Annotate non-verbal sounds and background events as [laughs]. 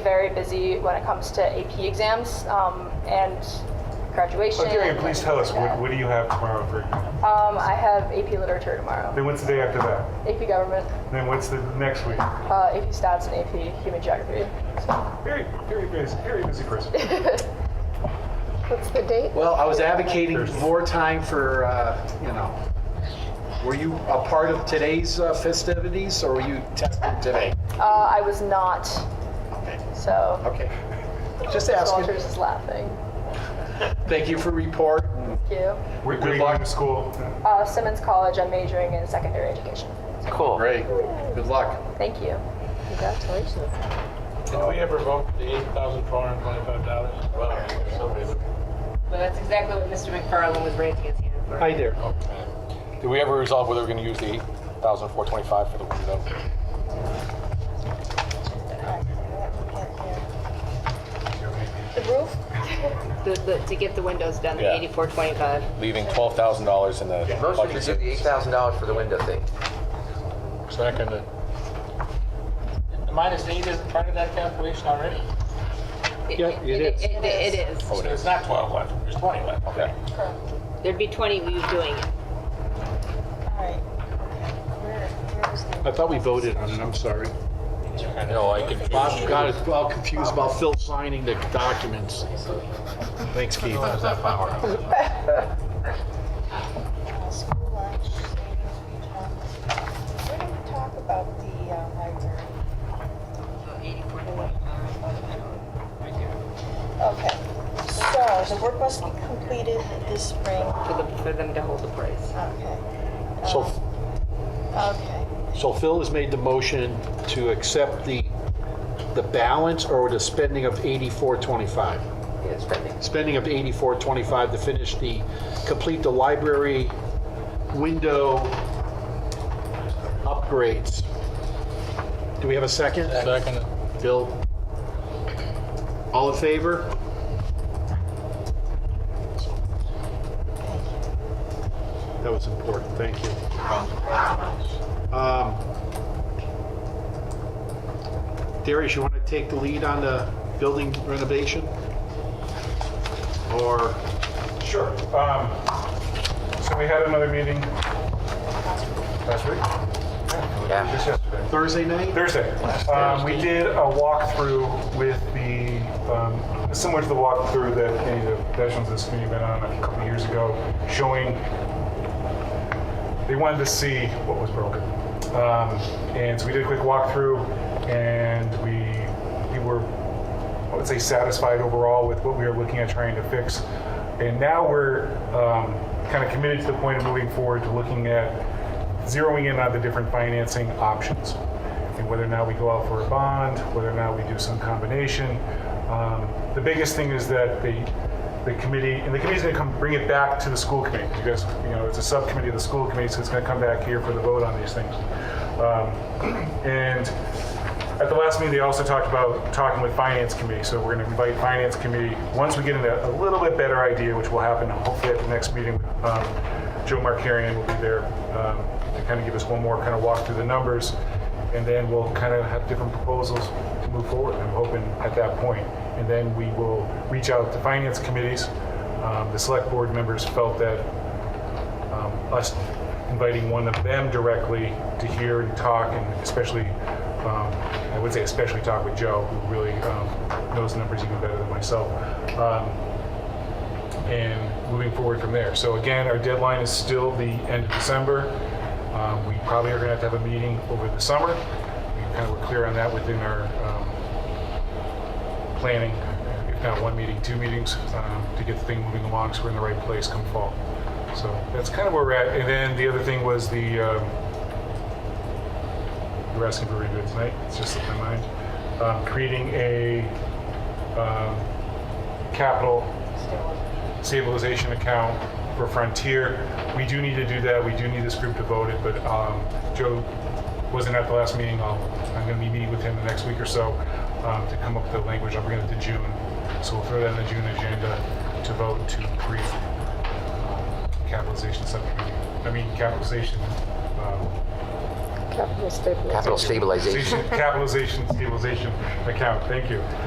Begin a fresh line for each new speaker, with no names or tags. very busy when it comes to AP exams um, and graduation.
Oh, Darian, please tell us, what, what do you have tomorrow for exam?
Um, I have AP Literature tomorrow,
Then what's the day after that?
AP Government,
Then what's the next week?
uh, AP Stats, and AP Human Geography.
Very, very busy, very busy
[laughs]
person.
[laughs] What's the date?
Well, I was advocating
There's-
more time for, uh, you know, were you a part of today's uh, festivities or were you tested today?
Uh, I was not,
Okay,
so
Okay. just
Miss
asking.
Walters is laughing.
Thank you for report.
Thank you.
We're
Good
going
luck.
to school.
Uh, Simmons College, I'm majoring in secondary education.
Cool.
Great, good luck.
Thank you.
Congratulations.
Did we ever vote for the eight thousand four hundred twenty-five dollars? Wow, somebody looked.
Well, that's exactly what Mr. McFarland was raising his hand for.
Hi there.
Did we ever resolve whether we're gonna use the eight thousand four twenty-five for the window?
The, the, to get the windows done, the
Yeah.
eighty-four twenty-five.
Leaving twelve thousand dollars in the
Motion to give the eight thousand dollars for the window thing.
Second. Minus eight isn't part of that calculation already?
Yeah, it is.
It, it it is.
Oh, it is. It's not twelve left, there's twenty left. Okay.
There'd be twenty of you doing it.
I thought we voted on it, I'm sorry.
No, I can.
Bob got it all confused about Phil signing the documents. Thanks, Keith.
School lunch, savings for time. Where did we talk about the uh, library? Okay, so the work must be completed this spring,
For them, for them to hold the price.
okay.
So,
Um, Okay,
so Phil has made the motion to accept the, the balance or the spending of 8425?
Yeah, spending.
spending of 8425 to finish the, complete the library window upgrades. Do we have a second?
Second.
Bill? All in favor? That was important, thank you. Um, Darius, you want to take the lead on the building renovation? Or?
Sure. Um, so we had another meeting last week.
Yeah.
Just yesterday.
Thursday night?
Thursday. Um, we did a walkthrough with the, um, similar to the walkthrough that any of the veterans of this committee been on a couple of years ago, showing they wanted to see what was broken. Um, and so we did a quick walkthrough, and we, we were, I would say, satisfied overall with what we were looking at trying to fix. And now we're um, kind of committed to the point of moving forward to looking at zeroing in on the different financing options and whether or not we go out for a bond, whether or not we do some combination. Um, the biggest thing is that the the committee and the committee's going to come bring it back to the school committee because you know it's a subcommittee of the school committee, so it's going to come back here for the vote on these things. Um, [clears throat] and at the last meeting, they also talked about talking with finance committee, so we're gonna invite finance committee, once we get into a little bit better idea, which will happen hopefully at the next meeting, um, Joe Markarian will be there, um, to kind of give us one more kind of walk through the numbers, and then we'll kind of have different proposals to move forward, I'm hoping at that point. And then we will reach out to finance committees, um, the select board members felt that um, us inviting one of them directly to hear and talk, and especially, um, I would say especially talk with Joe, who really um, knows the numbers even better than myself, um, and moving forward from there. So again, our deadline is still the end of December. Um, we probably are going to have to have a meeting over the summer. We kind of were clear on that within our um, planning, if not one meeting, two meetings, um, to get the thing moving along so we're in the right place come fall. So that's kind of where we're at. And then the other thing was the, um, you were asking for review tonight, it's just in my mind, um, creating a um, capital stabilization account for Frontier. We do need to do that, we do need this group to vote it, but um, Joe wasn't at the last meeting, I'll, I'm gonna be meeting with him the next week or so um, to come up with the language, I'll bring it to June. So we'll throw that in the June agenda to vote to create um, capitalization subcommittee, I mean capitalization um,
Capital stabilization.
Capital stabilization.
Capitalization, stabilization account, thank you.